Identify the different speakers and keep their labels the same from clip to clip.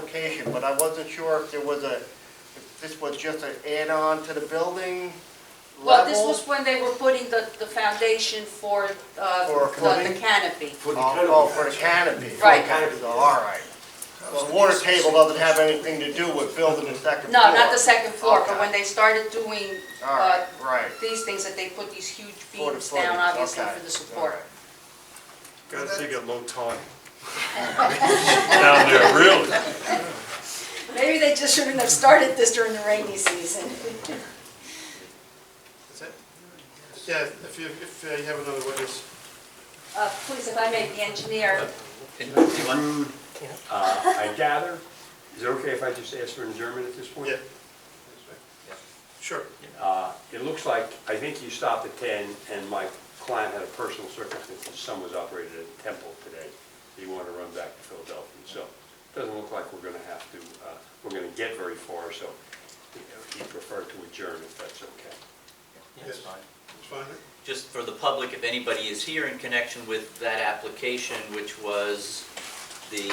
Speaker 1: application, but I wasn't sure if there was a, if this was just an add-on to the building
Speaker 2: Well, this
Speaker 1: level?
Speaker 2: was when they were putting the, the foundation for, uh,
Speaker 1: For a
Speaker 2: the- the
Speaker 1: footing?
Speaker 2: canopy.
Speaker 1: Oh,
Speaker 3: For the kind of-
Speaker 1: oh, for the canopy.
Speaker 2: Right.
Speaker 1: Okay, so, All right. Well, the water table doesn't have anything to do with building the second
Speaker 2: No,
Speaker 1: floor.
Speaker 2: not the second floor,
Speaker 1: Okay.
Speaker 2: but when they started doing,
Speaker 1: All right,
Speaker 2: uh,
Speaker 1: right.
Speaker 2: these things, that they put these huge
Speaker 1: For the
Speaker 2: beams down,
Speaker 1: footings,
Speaker 2: obviously,
Speaker 1: okay,
Speaker 2: for the
Speaker 1: all
Speaker 2: support.
Speaker 1: right.
Speaker 4: Gotta take a low time. Down there, really?
Speaker 2: Maybe they just shouldn't have started this during the rainy season.
Speaker 5: That's it? Yeah, if you, if uh, you have another witness.
Speaker 2: Uh, please, if I may, the engineer,
Speaker 3: Rude, uh, I gather, is it okay if I just ask for an adjournment at this point?
Speaker 5: Yeah. Sure.
Speaker 3: Uh, It looks like, I think you stopped at 10, and my client had a personal circumstance, his son was operated at Temple today. He wanted to run back to Philadelphia, so it doesn't look like we're gonna have to, uh, we're gonna get very far, so he preferred to adjourn if that's okay.
Speaker 6: Yeah, that's fine.
Speaker 5: It's fine.
Speaker 6: Just for the public, if anybody is here in connection with that application, which was the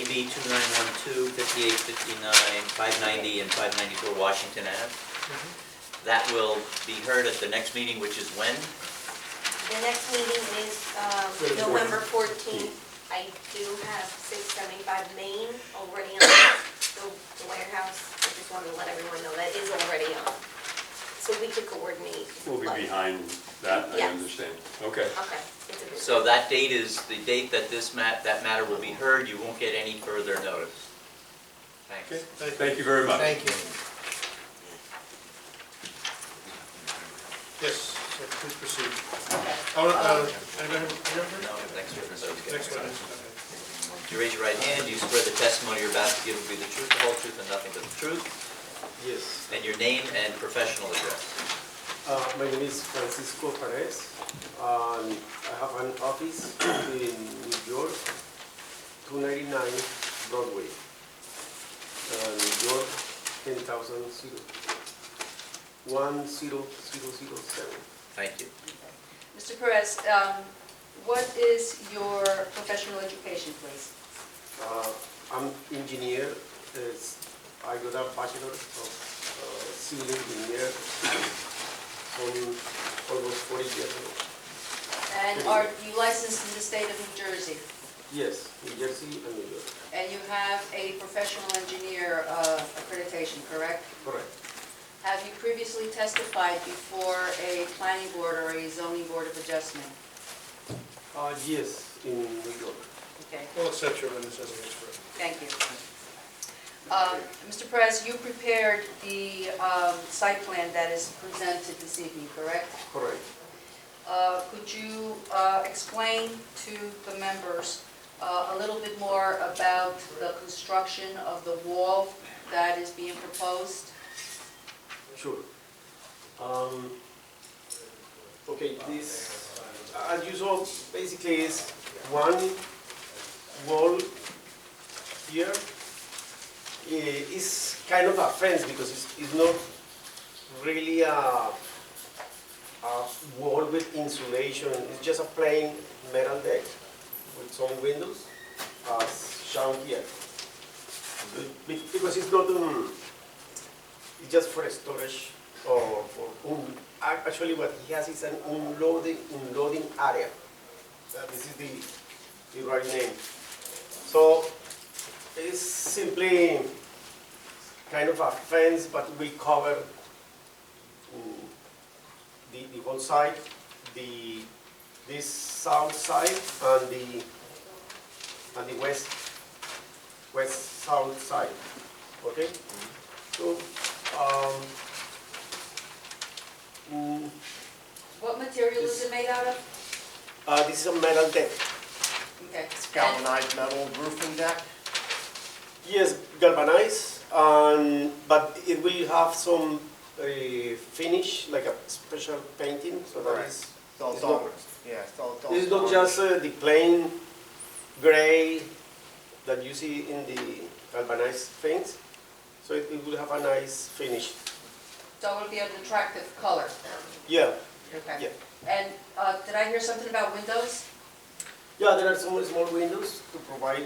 Speaker 6: AB 2912, 5859, 590, and 594 Washington Ave,
Speaker 5: Mm-hmm.
Speaker 6: that will be heard at the next meeting, which is when?
Speaker 7: The next meeting is um,
Speaker 3: Fourteenth.
Speaker 7: November 14th. I do have 675 Main already on the the warehouse. I just wanted to let everyone know that is already on. So we could coordinate.
Speaker 3: We'll
Speaker 7: but-
Speaker 3: be behind that, I
Speaker 7: Yes.
Speaker 3: understand. Okay.
Speaker 7: Okay. it's a bit-
Speaker 6: So that date is the date that this mat, that matter will be heard. You won't get any further notice. Thanks.
Speaker 5: Okay, thank you.
Speaker 3: Thank you very much.
Speaker 5: you. Yes, so please proceed.
Speaker 2: okay.
Speaker 5: Oh, uh, anybody have,
Speaker 6: No, next witness, I was getting
Speaker 5: next
Speaker 6: excited.
Speaker 5: witness?
Speaker 6: Do you raise your right hand? Do you swear the testimony you're about to give will be the truth, the whole truth, and nothing but the truth?
Speaker 8: Yes,
Speaker 6: And your name and professional address?
Speaker 8: uh, my name is Francisco Perez. Um, I have an office in New York, 299 Broadway, uh, New York, 10,000, 10007.
Speaker 6: Thank you.
Speaker 2: Mr. Perez, um, what is your professional education, please?
Speaker 8: Uh, I'm engineer, It's- I got a bachelor of uh, civil engineer from almost 40 years ago.
Speaker 2: And are you licensed in the state of New Jersey?
Speaker 8: Yes, New Jersey and New York,
Speaker 2: And you have a professional engineer uh, accreditation, correct?
Speaker 8: correct.
Speaker 2: Have you previously testified before a planning board or a zoning board of adjustment?
Speaker 8: Uh, yes, in New York.
Speaker 2: Okay,
Speaker 5: We'll accept your witness as an expert.
Speaker 2: thank you. Um, Mr. Perez, you prepared the um, site plan that is presented this evening, correct?
Speaker 8: Correct.
Speaker 2: Uh, Could you uh, explain to the members uh, a little bit more about the construction of the wall that is being proposed?
Speaker 8: Sure. Um, okay, this, as you saw, basically is one wall here. I- It's kind of a fence because it's, it's not really a, a wall with insulation. It's just a plain metal deck with some windows, as shown here. Be- be- Because it's not, um, it's just for storage or for, un- ac- actually what he has is an unloading, unloading area. Uh, This is the, the right name. So it's simply kind of a fence, but will cover mm, the, the whole side, the, this south side and the, and the west, west south side, okay? So, um, mm,
Speaker 2: What material is it made out of?
Speaker 8: uh, this is a metal deck.
Speaker 2: Okay.
Speaker 1: It's galvanized metal roofing deck?
Speaker 8: Yes, galvanized, and, but it will have some uh, finish, like a special painting, so that
Speaker 1: Right.
Speaker 8: is.
Speaker 1: So it's
Speaker 8: It's not-
Speaker 1: all, yeah, so it's all.
Speaker 8: It's not just uh, the plain gray that you see in the galvanized paints, so it it will have a nice finish.
Speaker 2: So it'll be an attractive color.
Speaker 8: Yeah,
Speaker 2: Okay.
Speaker 8: yeah.
Speaker 2: And uh, did I hear something about windows?
Speaker 8: Yeah, there are some small windows to provide